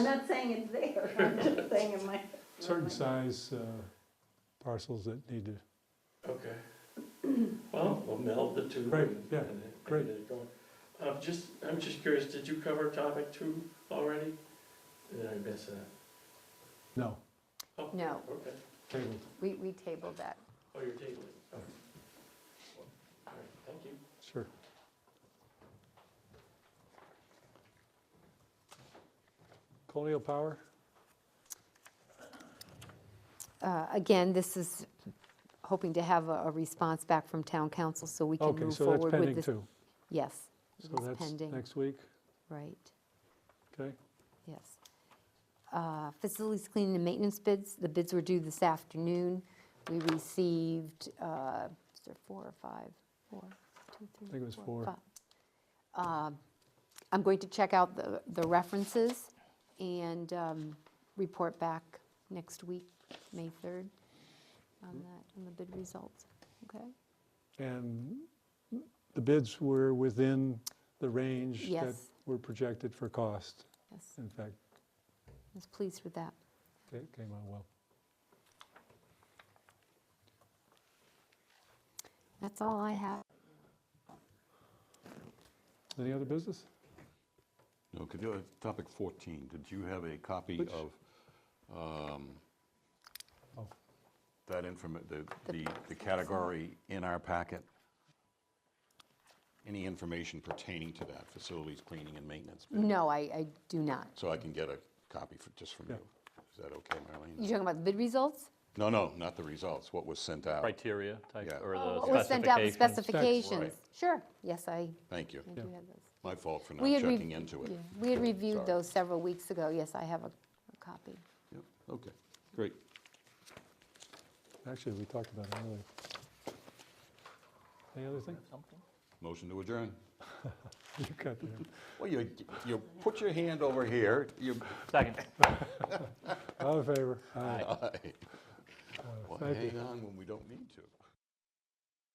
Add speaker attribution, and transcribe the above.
Speaker 1: I'm not saying it's there, I'm just saying in my.
Speaker 2: certain size uh, parcels that need to,
Speaker 3: Okay. Well, we'll meld the two.
Speaker 2: Great,
Speaker 3: and-
Speaker 2: yeah,
Speaker 3: and- and
Speaker 2: great.
Speaker 3: get it going. Uh, just, I'm just curious, did you cover topic two already? Did I miss that?
Speaker 2: no,
Speaker 4: No,
Speaker 3: Okay.
Speaker 2: tabled.
Speaker 4: we, we tabled that.
Speaker 3: Oh, you're tabling. it. Okay. All right, thank you.
Speaker 2: Sure. Colonial Power,
Speaker 4: Uh, Again, this is hoping to have a, a response back from town council so we can
Speaker 2: okay,
Speaker 4: move
Speaker 2: so that's
Speaker 4: forward with
Speaker 2: pending
Speaker 4: this.
Speaker 2: too.
Speaker 4: Yes,
Speaker 2: So
Speaker 4: it's
Speaker 2: that's
Speaker 4: pending,
Speaker 2: next week,
Speaker 4: right,
Speaker 2: okay?
Speaker 4: yes. Uh, Facilities cleaning and maintenance bids, the bids were due this afternoon. We received, uh, is there four or five? Four, two, three,
Speaker 2: think it was four.
Speaker 4: five. Um, I'm going to check out the, the references and um, report back next week, May 3rd, on that, on the bid results, okay?
Speaker 2: And the bids were within the range that
Speaker 4: Yes.
Speaker 2: were projected for cost.
Speaker 4: Yes, I
Speaker 2: In fact,
Speaker 4: was pleased with that.
Speaker 2: it came out well.
Speaker 4: That's all I have.
Speaker 2: Any other business?
Speaker 5: No, could you, uh, topic 14, did you have a copy
Speaker 2: Which?
Speaker 5: of um,
Speaker 2: Oh.
Speaker 5: that informa, the,
Speaker 4: The-
Speaker 5: the the category in our packet? Any information pertaining to that, facilities, cleaning, and maintenance? bid?
Speaker 4: No, I, I do not.
Speaker 5: So I can get a copy for, just from
Speaker 2: Yeah.
Speaker 5: you? Is that okay,
Speaker 4: You
Speaker 5: Marlene?
Speaker 4: talking about the bid results?
Speaker 5: No, no, not the results, what was sent out.
Speaker 6: criteria type,
Speaker 5: Yeah.
Speaker 6: or
Speaker 4: Oh,
Speaker 6: the
Speaker 4: What was sent out, the
Speaker 6: specifications.
Speaker 4: specifications? Sure, yes, I,
Speaker 5: Thank you.
Speaker 4: I do have those.
Speaker 5: My fault for not
Speaker 4: We had re-
Speaker 5: checking into it.
Speaker 4: yeah, We had reviewed
Speaker 5: Sorry.
Speaker 4: those several weeks ago, yes, I have a a copy.
Speaker 5: Yep, Okay, great.
Speaker 2: Actually, we talked about it earlier. Any other thing?
Speaker 5: Motion to adjourn.
Speaker 2: You got there.
Speaker 5: Well, you, you put your hand over here, you,
Speaker 6: Second.
Speaker 2: All in favor? Aye.
Speaker 5: Well, hang on when we don't need to.